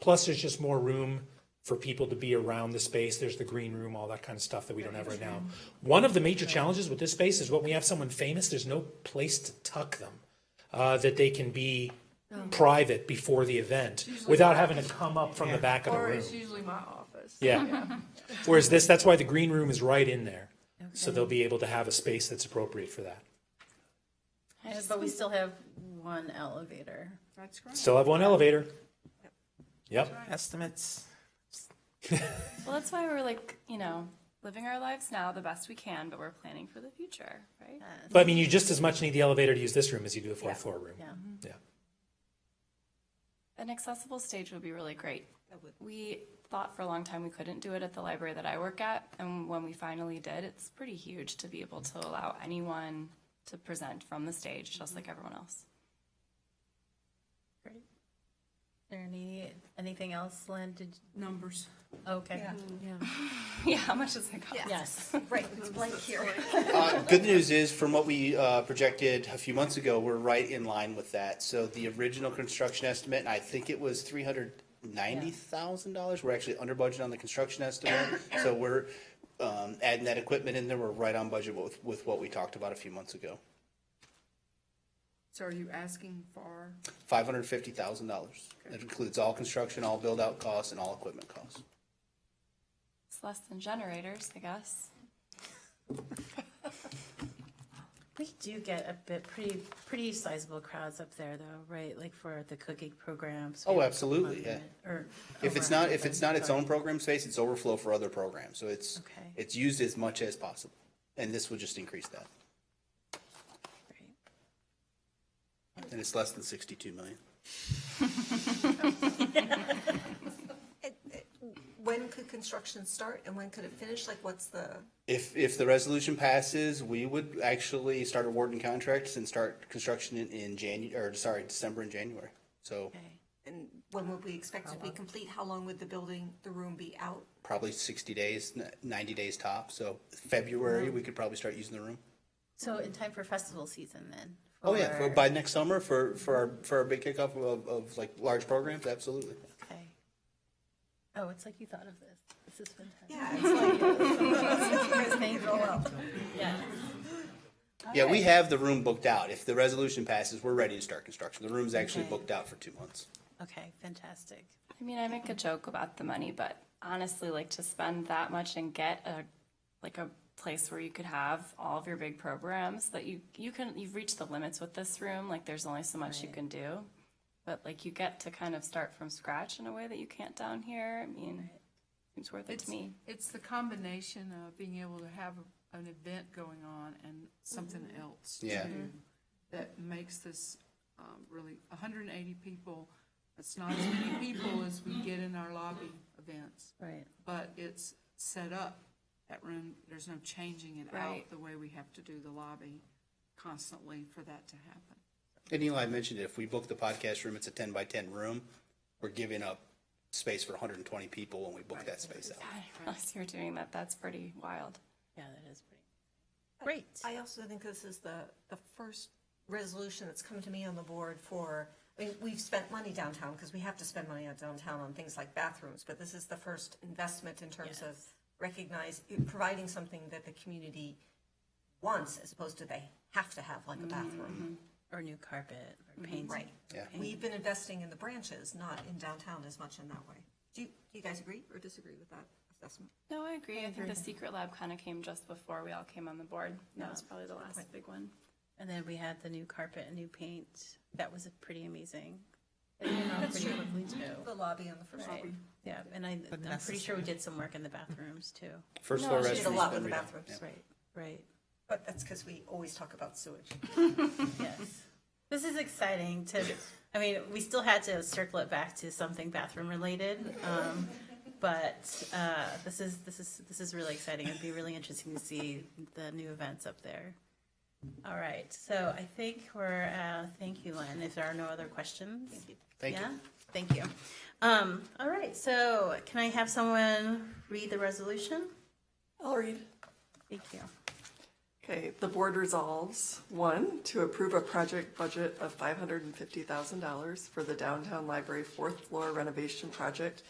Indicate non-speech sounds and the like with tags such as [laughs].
Plus, there's just more room for people to be around the space. There's the green room, all that kind of stuff that we don't have right now. One of the major challenges with this space is when we have someone famous, there's no place to tuck them, uh, that they can be private before the event without having to come up from the back of the Or room. it's usually my office. Yeah. Whereas this, that's why the green room is right in there. So they'll be able to have a space that's appropriate for that. Uh, But we still have one elevator. That's great. Still have one elevator. Yep. Estimates. Well, that's why we're like, you know, living our lives now the best we can, but we're planning for the future, right? But I mean, you just as much need the elevator to use this room as you do the fourth floor room. Yeah. Yeah. An accessible stage would be really great. We thought for a long time we couldn't do it at the library that I work at, and when we finally did, it's pretty huge to be able to allow anyone to present from the stage, just like everyone else. [laughs] Great. There any, anything else, Lynn? Did, oh, Numbers. okay. Yeah, how much does it cost? Yes, right, it's right here. Uh, good news is, from what we uh, projected a few months ago, we're right in line with that. So the original construction estimate, and I think it was three hundred ninety thousand dollars. We're actually under budget on the construction estimate, so we're um, adding that equipment in there. We're right on budget with, with what we talked about a few months ago. So are you asking for, Five hundred fifty thousand dollars. That includes all construction, all build out costs, and all equipment costs. It's less than generators, I guess. We do get a bit, pretty, pretty sizable crowds up there though, right? Like for the cooking programs. we Oh, have absolutely, yeah. 100 Or. oh. If it's over not if 100, it's not its sorry. own program space, it's overflow for other programs. So it's Okay. it's used as much as possible, and this will just increase that. Right. And it's less than 62 million. When could construction start and when could it finish? Like, what's the, If, if the resolution passes, we would actually start awarding contracts and start construction in, in Janu, or sorry, December and January. So Okay. and when would we expect it to be complete? How long would the building, the room be out? probably 60 days, n- 90 days top. So February, we could probably start using the room. So in time for festival season then? Oh yeah, for, by next summer for, for our, for our big kickoff of, of like large programs, absolutely. Okay. Oh, it's like you thought of this. This is fantastic. Yeah, it's [laughs] like, Thank you. Yeah. Yeah, we have the room booked out. If the resolution passes, we're ready to start construction. The room's actually Okay. booked out for two months. Okay, fantastic. I mean, I make a joke about the money, but honestly, like to spend that much and get a like a place where you could have all of your big programs that you you can you've reached the limits with this room. Like there's only so much you can do, but like you get to kind of start from scratch in a way that you can't down here. I mean, seems worth it it's, to me. it's the combination of being able to have an event going on and something else. Yeah. too, That makes this, um, really, hundred and eighty people, it's not as many people as we get in our lobby events. Right. but it's set up, that room, there's no changing it out Right. the way we have to do the lobby constantly for that to happen. And Eli mentioned it, if we book the podcast room, it's a ten by ten room, we're giving up space for hundred and twenty people when we book that space out. [laughs] I didn't realize you were doing that. That's pretty wild. Yeah, that is pretty. Great. Uh, I also think this is the, the first resolution that's come to me on the board for, I mean, we've spent money downtown because we have to spend money on downtown on things like bathrooms, but this is the first investment in terms of recognize, providing something that the community wants as opposed to they have to have like a bathroom. Or new carpet Mm-hmm. or paint. Right. Yeah. We've been investing in the branches, not in downtown as much in that way. Do you, do you guys agree or disagree with that assessment? No, I agree. I think the secret lab kind of came just before we all came on the board. That was probably the last big one. And then we had the new carpet and new paint. That was pretty amazing. It went on pretty quickly too. The lobby on the first floor. Right. Yeah, and I, I'm pretty sure we did some work in the bathrooms too. First floor We did a restroom's lot been with the redone. bathrooms, Right, right. but that's because we always talk about sewage. Yes. This is exciting to, I mean, we still had to circle it back to something bathroom related. Um, but, uh, this is, this is, this is really exciting. It'd be really interesting to see the new events up there. All right, so I think we're, uh, thank you, Lynn. If there are no other questions. Thank you. Yeah, thank you. Um, all right, so can I have someone read the resolution? I'll read. Thank you. Okay, the board resolves, one, to approve a project budget of $550,000 for the downtown library fourth floor renovation project